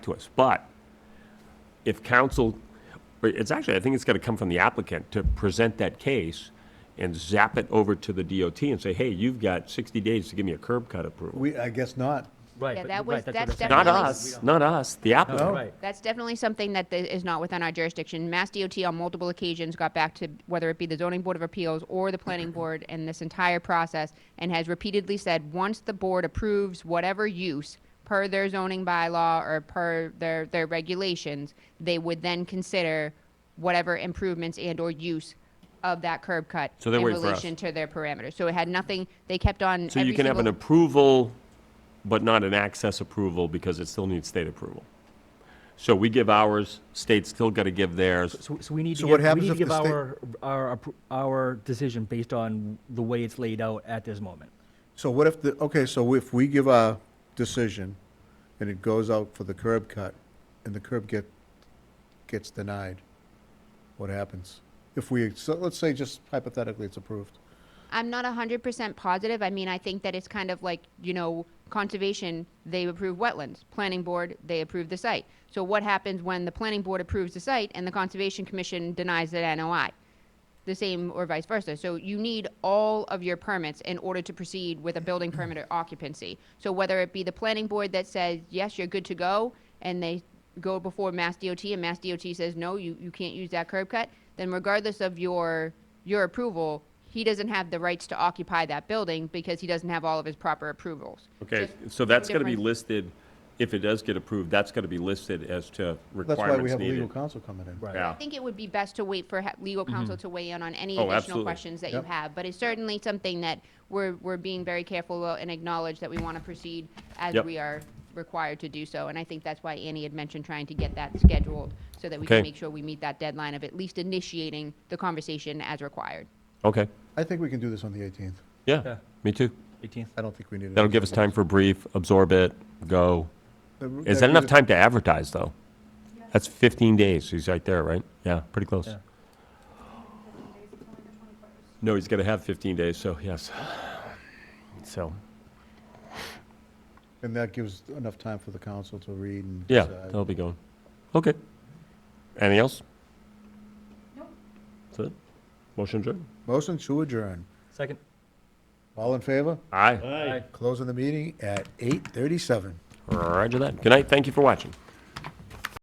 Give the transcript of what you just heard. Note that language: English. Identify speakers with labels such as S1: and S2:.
S1: to us. But if council, it's actually, I think it's got to come from the applicant to present that case and zap it over to the DOT and say, hey, you've got 60 days to give me a curb cut approval.
S2: We, I guess not.
S3: Right.
S4: Yeah,
S3: but-
S4: that
S3: right,
S4: was-
S3: what
S4: that's
S3: I'm saying.
S1: Not
S4: Definitely.
S1: us, not us, the applicant.
S3: Right.
S4: That's definitely something that th- is not within our jurisdiction. Mass DOT on multiple occasions got back to whether it be the zoning board of appeals or the planning board in this entire process and has repeatedly said, once the board approves whatever use per their zoning bylaw or per their, their regulations, they would then consider whatever improvements and or use of that curb cut
S1: So they're
S4: in
S1: waiting for us.
S4: relation to their parameters. So it had nothing, they kept on.
S1: So you
S4: every
S1: can have an
S4: single-
S1: approval, but not an access approval because it still needs state approval. So we give ours, state's still got to give theirs.
S3: So, so we need to
S2: So what
S3: give, we
S2: happens
S3: need to
S2: if the
S3: give
S2: state-
S3: our, our, appro- our decision based on the way it's laid out at this moment.
S2: So what if the, okay, so if we give our decision and it goes out for the curb cut and the curb get, gets denied, what happens? If we, so let's say just hypothetically it's approved.
S4: I'm not 100% positive. I mean, I think that it's kind of like, you know, conservation, they approve wetlands. Planning board, they approve the site. So what happens when the planning board approves the site and the conservation commission denies the NOI? The same or vice versa. So you need all of your permits in order to proceed with a building permit or occupancy. So whether it be the planning board that says, yes, you're good to go, and they go before Mass DOT and Mass DOT says, no, you, you can't use that curb cut, then regardless of your, your approval, he doesn't have the rights to occupy that building because he doesn't have all of his proper approvals.
S1: Okay,
S4: Just
S1: so that's got to be
S4: different-
S1: listed, if it does get approved, that's got to be listed as to
S2: That's why we
S1: requirements
S2: have legal
S1: needed.
S2: counsel coming in.
S3: Right.
S1: Yeah. Mm-hmm.
S4: I think it would be best to wait for ha- legal counsel to weigh in on any
S1: Oh,
S4: additional
S1: absolutely.
S4: questions that you
S2: Yep.
S4: have. But it's certainly something that we're, we're being very careful and acknowledge that we want to proceed as
S1: Yep.
S4: we are required to do so. And I think that's why Annie had mentioned trying to get that scheduled so that we
S1: Okay.
S4: can make sure we meet that deadline of at least initiating the conversation as required.
S1: Okay,
S2: I think we can do this on the eighteenth.
S1: yeah,
S3: Yeah.
S1: me too.
S3: 18th.
S2: I don't think we need it.
S1: That'll give us time for brief, absorb it, go. Is that enough time to advertise, though? That's 15 days, he's right there, right? Yeah, pretty close.
S3: Yeah.
S1: No, he's got to have 15 days, so yes. So,
S2: And that gives enough time for the council to read and.
S1: yeah,
S2: decide.
S1: that'll be going. Okay. Anything else? Nope. That's it? Motion adjourned?
S2: Motion to adjourn.
S3: Second.
S2: All in favor?
S1: Aye.
S3: Aye.
S2: Closing the meeting at eight thirty-seven.
S1: Roger that. Good night, thank you for watching.